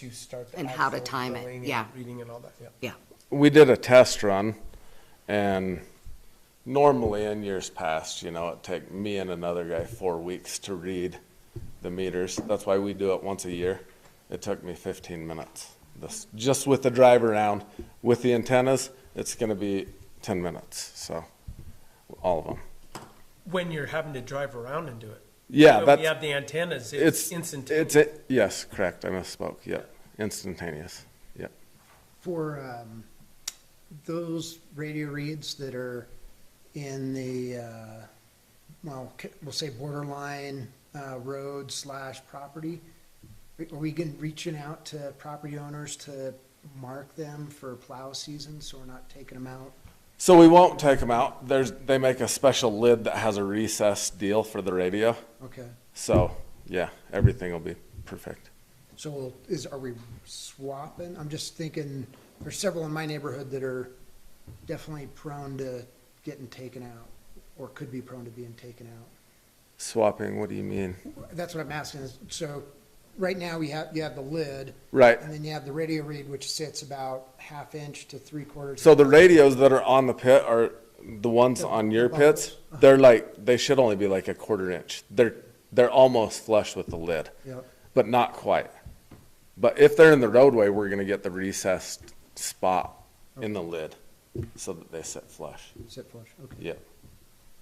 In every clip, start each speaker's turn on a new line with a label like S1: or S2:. S1: to start. the
S2: And how to
S1: actual
S2: time it,
S1: billing and
S2: yeah.
S1: Reading and all that, yeah.
S3: we did a test run and normally in years past, you know, it take me and another guy four weeks to read the meters. That's why we do it once a year. It took me fifteen minutes. This, just with the drive around, with the antennas, it's gonna be ten minutes, so, all of them.
S1: When you're having to drive around and do it.
S3: Yeah,
S1: When we
S3: that's,
S1: have the antennas, it's
S3: it's,
S1: instantaneous.
S3: it's, it- yes, correct, I misspoke, yeah, instantaneous, yeah.
S4: For um, those radio reads that are in the, uh, well, c- we'll say borderline uh, road slash property, are we going, reaching out to property owners to mark them for plow season so we're not taking them out?
S3: So we won't take them out. There's, they make a special lid that has a recessed deal for the radio.
S4: Okay,
S3: So, yeah, everything will be perfect.
S4: so we'll- is, are we swapping? I'm just thinking, there's several in my neighborhood that are definitely prone to getting taken out or could be prone to being taken out.
S3: Swapping, what do you mean?
S4: That's what I'm asking is, so right now we have, you have the lid
S3: Right.
S4: and then you have the radio read, which sits about half inch to three quarters.
S3: So the radios that are on the pit are the ones on your pits. They're like, they should only be like a quarter inch. They're, they're almost flush with the lid,
S4: Yep.
S3: but not quite. But if they're in the roadway, we're going to get the recessed spot in the lid so that they sit flush.
S4: Sit flush, okay.
S3: Yep.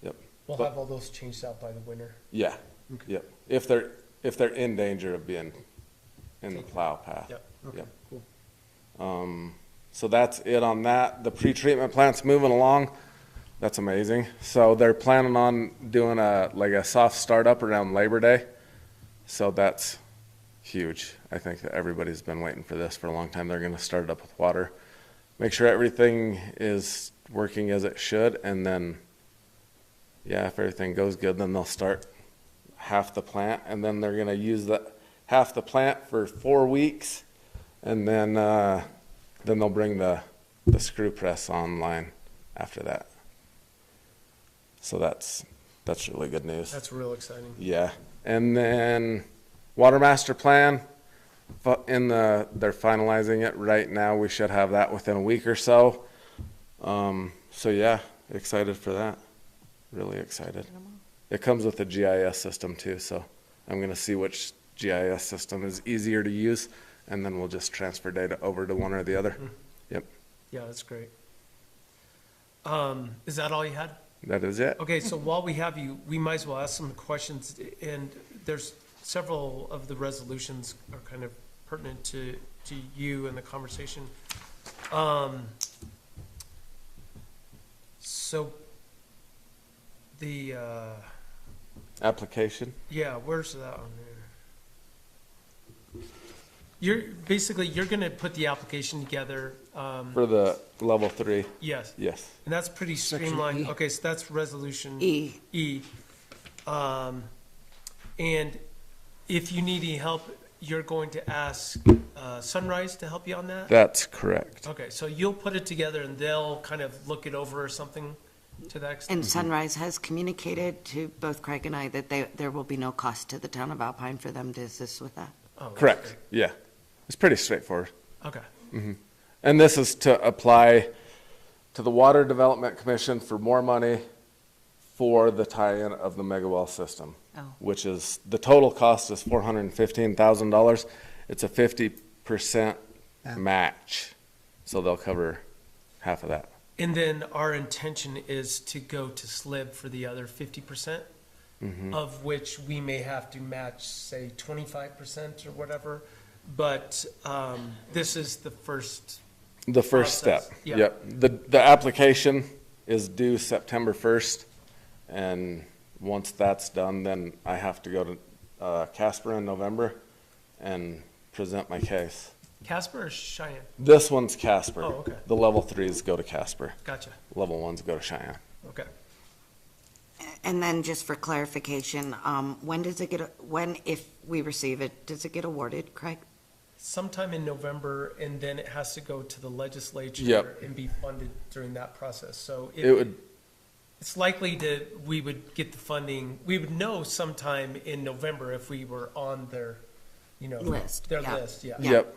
S3: Yep.
S1: We'll have all those changed out by the winter.
S3: Yeah,
S4: Okay.
S3: yep. If they're, if they're in danger of being in the plow path.
S1: Yep.
S4: Okay, cool.
S3: So that's it on that. The pretreatment plant's moving along. That's amazing. So they're planning on doing a, like a soft startup around Labor Day. So that's huge. I think that everybody's been waiting for this for a long time. They're gonna start it up with water. Make sure everything is working as it should and then, yeah, if everything goes good, then they'll start half the plant and then they're gonna use the, half the plant for four weeks. And then, uh, then they'll bring the, the screw press online after that. So that's, that's really good news.
S1: That's real exciting.
S3: Yeah, and then water master plan, fu- in the, they're finalizing it right now. We should have that within a week or so. Um, so yeah, excited for that. Really excited. It comes with a GIS system too, so I'm gonna see which GIS system is easier to use, and then we'll just transfer data over to one or the other. Yep,
S1: Yeah, that's great. Um, is that all you had?
S3: that is it.
S1: Okay, so while we have you, we might as well ask some questions, and there's several of the resolutions are kind of pertinent to, to you and the conversation. Um, So, the, uh,
S3: Application.
S1: yeah, where's that on there? You're, basically, you're gonna put the application together, um,
S3: For the level three,
S1: yes,
S3: yes.
S1: and that's pretty
S4: Section
S1: streamlined,
S4: E.
S1: okay, so that's resolution.
S2: E,
S1: E. Um, and if you need any help, you're going to ask uh, Sunrise to help you on that?
S3: That's correct.
S1: Okay, so you'll put it together and they'll kind of look it over or something to that extent?
S2: and Sunrise has communicated to both Craig and I that they, there will be no cost to the town of Alpine for them to assist with that.
S1: Oh, that's
S3: Correct, yeah. It's pretty straightforward.
S1: great. Okay,
S3: And this is to apply to the Water Development Commission for more money for the tie-in of the mega well system,
S2: Oh.
S3: which is, the total cost is four hundred and fifteen thousand dollars. It's a fifty percent
S4: Yeah.
S3: match, so they'll cover half of that.
S1: and then our intention is to go to SLIB for the other fifty percent, of which we may have to match, say, twenty-five percent or whatever, but um, this is the first
S3: The first step,
S1: Process, yeah.
S3: yep. The, the application is due September first, and once that's done, then I have to go to, uh, Casper in November and present my case.
S1: Casper or Cheyenne?
S3: This one's Casper.
S1: Oh, okay.
S3: The level threes go to Casper.
S1: Gotcha.
S3: Level ones go to Cheyenne.
S1: Okay.
S2: And then just for clarification, um, when does it get, when, if we receive it, does it get awarded, Craig?
S1: Sometime in November, and then it has to go to the legislature
S3: Yep.
S1: and be funded during that process. So
S3: It
S1: it,
S3: would,
S1: it's likely to, we would get the funding, we would know sometime in November if we were on their, you know.
S2: List,
S1: Their
S2: yeah.
S1: list, yeah.
S2: Yeah.
S3: yep.